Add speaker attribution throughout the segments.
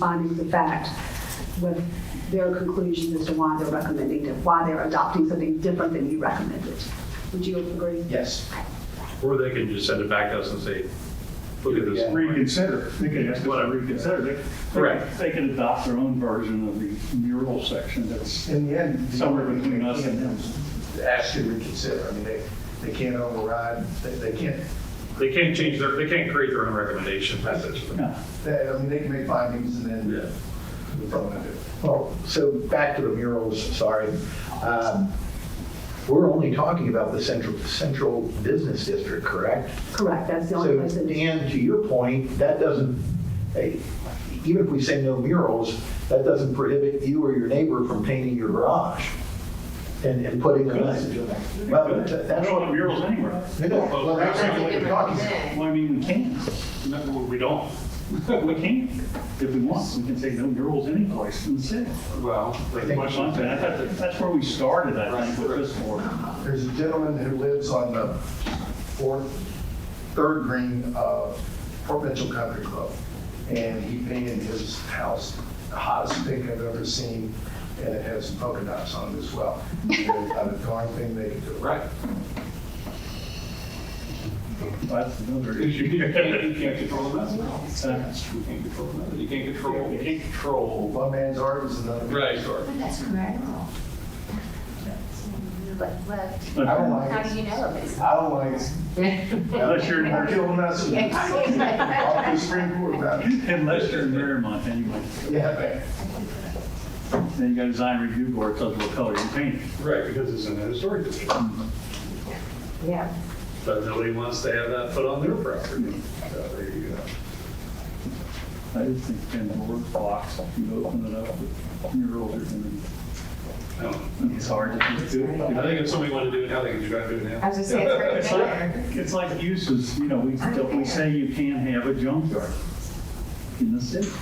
Speaker 1: findings of fact with their conclusions as to why they're recommending, it, why they're adopting something different than you recommended. Would you agree?
Speaker 2: Yes.
Speaker 3: Or they can just send it back to us and say, look at
Speaker 2: Yeah.
Speaker 3: this.
Speaker 4: reconsider. They could ask us
Speaker 3: Whatever.
Speaker 4: to reconsider. They- they-
Speaker 2: Correct.
Speaker 4: They could adopt their own version of the mural section that's
Speaker 5: In the end. E the
Speaker 4: somewhere
Speaker 5: only thing
Speaker 4: between
Speaker 5: they
Speaker 4: us and
Speaker 5: can
Speaker 4: them.
Speaker 5: do is Ask you to reconsider. I mean, they, they can't override, they, they can't,
Speaker 3: They can't change their, they can't create their own recommendation, that's essentially.
Speaker 4: Yeah.
Speaker 5: they, I mean, they can make findings and then.
Speaker 3: Yeah.
Speaker 5: we're probably gonna do it.
Speaker 6: Well, so back to the murals, sorry. Um, We're only talking about the central, central business district, correct?
Speaker 1: Correct, that's the only
Speaker 6: So,
Speaker 1: place that is.
Speaker 6: Dan, to your point, that doesn't, hey, even if we say no murals, that doesn't prohibit you or your neighbor from painting your garage and, and putting a message in there. Well,
Speaker 4: They
Speaker 6: that- that's
Speaker 4: don't want
Speaker 6: what,
Speaker 4: murals anywhere.
Speaker 6: no, no, well, that's not what we're talking about.
Speaker 4: Well, I mean, we can. No, we don't. We can. If we want, we can say no murals any place in the city.
Speaker 2: Well, the
Speaker 4: Much
Speaker 2: question
Speaker 4: like that. I thought That's where we started, I think, with this board.
Speaker 5: There's a gentleman who lives on the fourth, third green of Provincial Country Club. And he painted his house the hottest pink I've ever seen, and it has polka dots on it as well. And Not a darn thing they could do.
Speaker 2: Right.
Speaker 4: That's another
Speaker 2: Because you
Speaker 4: issue.
Speaker 2: can't, you can't control the message. You can't control the message. You can't control, you can't control.
Speaker 5: One man's art is another. man's
Speaker 2: Sorry.
Speaker 7: But that's criminal. But, but,
Speaker 5: I don't like it.
Speaker 7: how do you know if it's?
Speaker 5: I don't like it.
Speaker 4: Unless you're in,
Speaker 5: I'll
Speaker 4: Mar-
Speaker 5: kill them, that's it. I'll go to Supreme Court about it.
Speaker 4: unless you're in Marymount anyway.
Speaker 5: Yeah, man.
Speaker 4: Then you got a design review board tells you what color you paint. it.
Speaker 3: Right, because it's in the historic district.
Speaker 7: Yeah.
Speaker 3: But nobody wants to have that put on their property. So there you go.
Speaker 4: I just think ten board blocks, if you open it up with murals, are gonna-
Speaker 3: No.
Speaker 4: it's hard to do.
Speaker 3: I think if somebody wanted to do it now, they could just go and do it
Speaker 7: I
Speaker 3: now.
Speaker 7: was just saying, it's
Speaker 4: It's
Speaker 7: right
Speaker 4: like,
Speaker 7: there.
Speaker 4: it's like uses, you know, we, we say you can't have a junkyard in the city.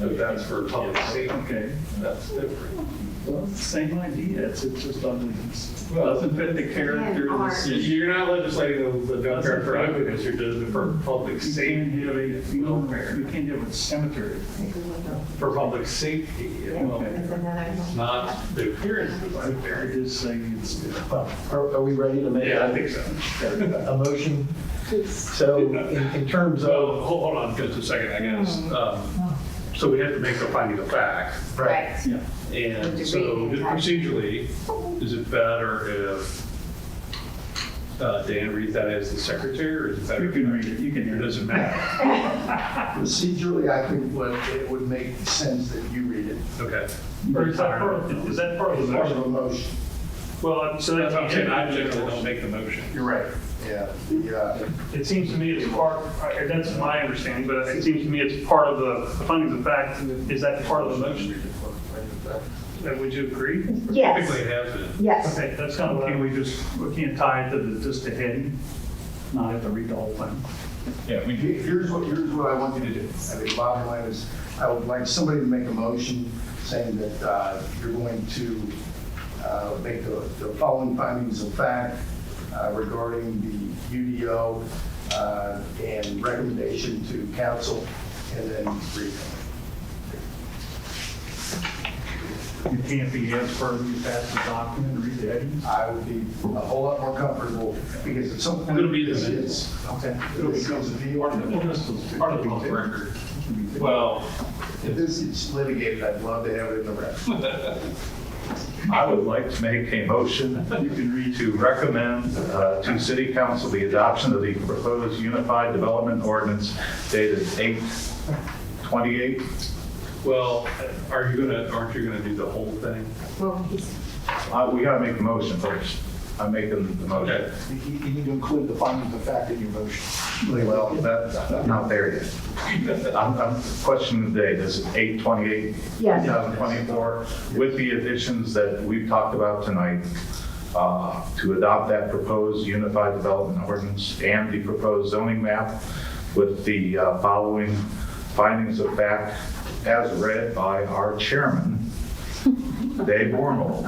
Speaker 3: But that's for public safety,
Speaker 4: Okay,
Speaker 3: that's different.
Speaker 4: well, same idea, it's, it's just ugly. It Doesn't fit the character of the
Speaker 7: Art.
Speaker 4: city.
Speaker 3: You're not legislating the, the junkyard for ugliness, you're doing it for public
Speaker 4: You can't have a,
Speaker 3: safety,
Speaker 4: you know, you can't have a cemetery.
Speaker 3: for public safety, you know,
Speaker 4: Okay.
Speaker 7: It's another one.
Speaker 3: not the appearance of
Speaker 4: I
Speaker 3: the
Speaker 4: I
Speaker 3: barrier.
Speaker 4: just say it's,
Speaker 6: Well, Are, are we ready to make
Speaker 3: Yeah, I
Speaker 6: a
Speaker 3: think so.
Speaker 6: a motion? So in, in terms of.
Speaker 3: So, hold hold on just a second, I guess. Um, So we have to make the finding of fact,
Speaker 7: Right.
Speaker 4: yeah.
Speaker 3: and so just procedurally, is it better if uh, Dan reads that as the secretary, or is it better?
Speaker 4: You can read it, you can
Speaker 3: It
Speaker 4: read it.
Speaker 3: doesn't matter,
Speaker 5: Procedurally, I think what, it would make sense that you read it.
Speaker 3: okay.
Speaker 2: Or is that part of, is that part of the
Speaker 5: Part of
Speaker 2: motion?
Speaker 5: a motion.
Speaker 2: Well, so
Speaker 3: That's what I'm saying, I
Speaker 2: generally
Speaker 3: generally don't make the motion.
Speaker 5: You're right. Yeah, the, uh,
Speaker 2: It seems to me it's part, I- that's my understanding, but it seems to me it's part of the, the findings of fact, is that part of the motion? Uh, Would you agree?
Speaker 3: Typically
Speaker 1: Yes,
Speaker 3: it has been.
Speaker 1: yes.
Speaker 2: Okay, that's kind of what I
Speaker 4: Can we just, we can't tie it to the, just the heading, not have to read the whole thing.
Speaker 3: Yeah, we
Speaker 5: Here- Here's what, here's what I want you to do. I mean, bottom line is, I would like somebody to make a motion saying that uh, you're going to uh, make the the following findings of fact uh, regarding the UDO uh, and recommendation to council, and then read it.
Speaker 4: It can't be as per you pass the document, read the headings.
Speaker 5: I would be a whole lot more comfortable, because at some point.
Speaker 3: It'll be the
Speaker 5: this
Speaker 3: minutes.
Speaker 5: is- This becomes a deal.
Speaker 4: Part
Speaker 3: Part of the public record. Well,
Speaker 5: If this is litigated, I'd love to have it in the record.
Speaker 8: I would like to make a motion to recommend uh, to City Council the adoption of the proposed Unified Development Ordinance dated 8/28.
Speaker 3: well, are you gonna, aren't you gonna do the whole thing?
Speaker 7: Well, he's,
Speaker 8: Uh, We gotta make the motion first. I'm making the motion.
Speaker 3: Okay,
Speaker 6: You, you need to include the findings of fact in your motion.
Speaker 8: Well, that's not there yet. I'm I'm questioning the date. Is it 8/28,
Speaker 1: Yes.
Speaker 8: 2024? With the additions that we've talked about tonight, uh, to adopt that proposed Unified Development Ordinance and the proposed zoning map with the uh, following findings of fact as read by our chairman, Dave Wormel.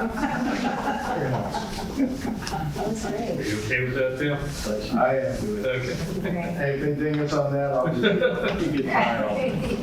Speaker 7: that's
Speaker 3: are
Speaker 7: great.
Speaker 3: you okay with that, Tim?
Speaker 5: I uh, am.
Speaker 3: Okay.
Speaker 7: Great.
Speaker 5: Anything else on that? I'll just
Speaker 4: You get tired of it.